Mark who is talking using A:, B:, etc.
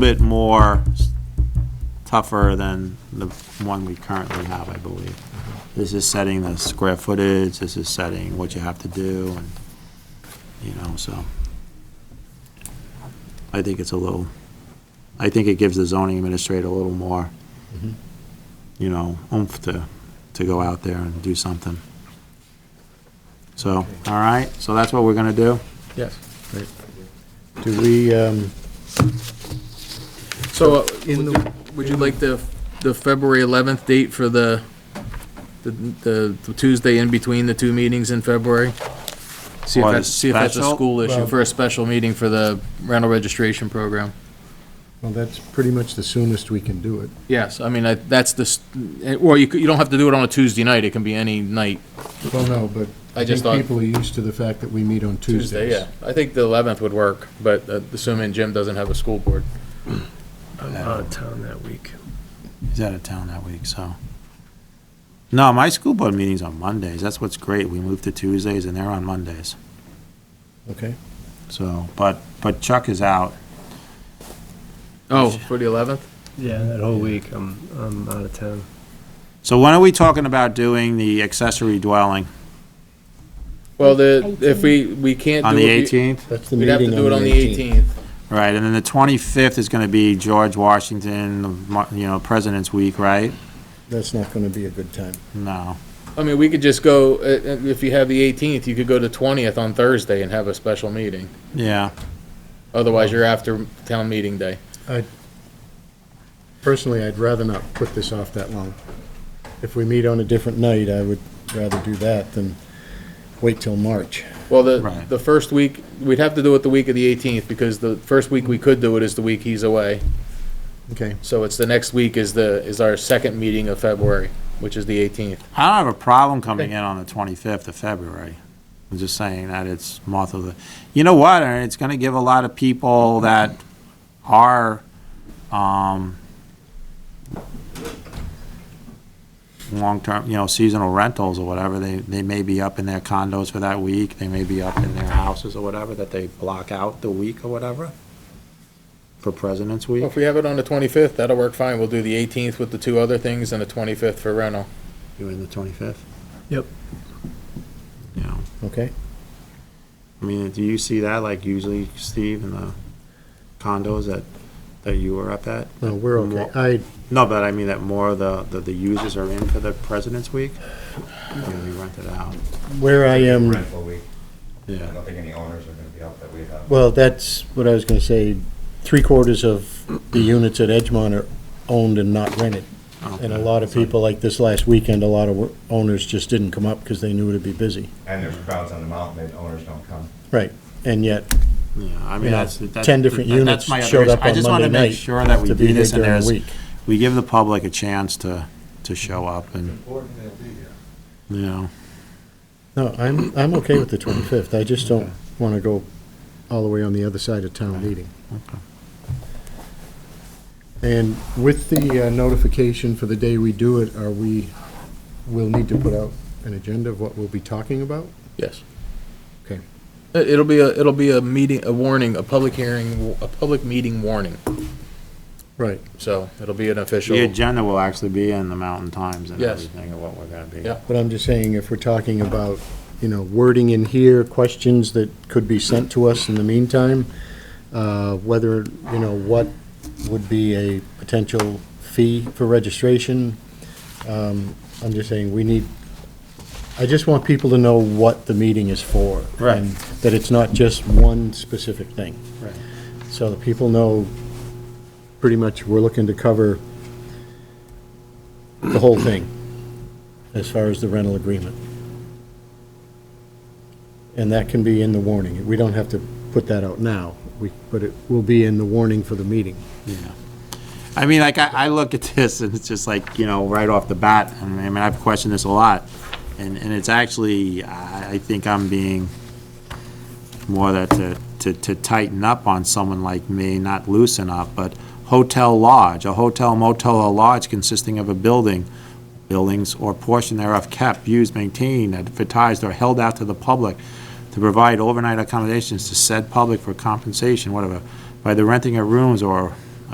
A: bit more s- tougher than the one we currently have, I believe. This is setting the square footage, this is setting what you have to do, and, you know, so. I think it's a little, I think it gives the zoning administrator a little more, you know, oomph to, to go out there and do something. So, all right, so that's what we're gonna do?
B: Yes.
C: Do we, um,
B: So, uh, would you- would you like the, the February 11th date for the, the- the the Tuesday in between the two meetings in February? See if
A: Or the
B: that's, see if that's a
A: special?
B: school issue
C: Well-
B: for a special meeting for the rental registration program.
C: well, that's pretty much the soonest we can do it.
B: Yes, I mean, I- that's the, s- eh, well, you, could- you don't have to do it on a Tuesday night, it can be any night.
C: Well, no, but
B: I
C: I
B: just
C: think
B: thought-
C: people are used to the fact that we meet on Tuesdays.
B: I think the 11th would work, but uh, assuming Jim doesn't have a school board.
D: I'm out of town that week.
A: He's out of town that week, so. No, my school board meeting's on Mondays. That's what's great. We moved to Tuesdays and they're on Mondays.
C: Okay,
A: So, but, but Chuck is out.
B: Oh, for the 11th?
D: Yeah, that whole week, I'm, I'm out of town.
A: So when are we talking about doing the accessory dwelling?
B: Well, the, if we, we can't do.
A: On the
B: it-
A: 18th?
C: that's the
B: We'd have to
C: meeting
B: do it on the 18th.
A: Right, and then the 25th is going to be George Washington, Mar- you know, President's Week, right?
C: That's not gonna be a good time.
A: No.
B: I mean, we could just go, uh, uh, if you have the 18th, you could go to 20th on Thursday and have a special meeting.
A: Yeah,
B: Otherwise, you're after town meeting day.
C: Personally, I'd rather not put this off that long. If we meet on a different night, I would rather do that than wait till March.
B: Well, the,
A: Right.
B: the first week, we'd have to do it the week of the 18th because the first week we could do it is the week he's away.
C: Okay,
B: So it's the next week is the, is our second meeting of February, which is the 18th.
A: I don't have a problem coming in on the 25th of February. I'm just saying that it's month of the, you know what, and it's going to give a lot of people that are, um, long-term, you know, seasonal rentals or whatever, they, they may be up in their condos for that week, they may be up in their houses or whatever, that they block out the week or whatever for President's
B: Well,
A: Week.
B: If we have it on the 25th, that'll work fine. We'll do the 18th with the two other things and the 25th for rental.
A: You're in the 25th?
D: Yep.
A: You know.
C: okay.
A: I mean, do you see that like usually, Steve, in the condos that, that you were up at?
C: No, we're okay.
A: Well-
C: I,
A: No, but I mean that more of the, the, the users are in for the President's Week? Yeah, we rented out.
C: where I am.
E: Rental week, I
A: Yeah.
E: don't think any owners are gonna be out that we have.
C: Well, that's what I was gonna say, three quarters of the units at Edgemont are owned and not rented. And a lot of people, like this last weekend, a lot of wo- owners just didn't come up because they knew it'd be busy.
E: And there's crowds on the mountain, and owners don't come.
C: And yet,
A: Yeah, I
C: you
A: mean,
C: know,
A: that's. that-
C: ten different
A: that-
C: units
A: that's my other
C: showed
A: issue.
C: up on
A: I just want
C: Monday
A: to make
C: night
A: sure that we
C: to
A: do
C: be here
A: this and
C: during the
A: there's,
C: week.
A: we give the public a chance to, to show up and,
E: Important they'll be here.
A: you know,
C: No, I'm, I'm okay with the twenty-fifth. I just don't wanna go all the way on the other side of town meeting. And with the uh, notification for the day we do it, are we, we'll need to put out an agenda of what we'll be talking about?
B: Yes.
C: Okay.
B: It- It'll be a, it'll be a meeting, a warning, a public hearing, a public meeting warning.
C: Right.
B: So it'll be an
A: the
B: official,
A: agenda will actually be in the Mountain Times and
B: Yes.
A: everything of what we're gonna be.
B: Yeah.
C: But I'm just saying, if we're talking about, you know, wording in here, questions that could be sent to us in the meantime, uh, whether, you know, what would be a potential fee for registration, um, I'm just saying, we need, I just want people to know what the meeting is for.
A: Right.
C: and That it's not just one specific thing.
A: Right.
C: So that people know, pretty much, we're looking to cover the whole thing as far as the rental agreement. And that can be in the warning. We don't have to put that out now, we- but it will be in the warning for the meeting.
A: Yeah. I mean, like, I, I look at this and it's just like, you know, right off the bat, I mean, I mean, I've questioned this a lot. And, and it's actually, I, I think I'm being more that to, to, to tighten up on someone like me, not loosen up, but hotel lodge, a hotel motel or lodge consisting of a building, buildings or portion thereof kept, used, maintained, advertised, or held out to the public to provide overnight accommodations to said public for compensation, whatever, by the renting of rooms or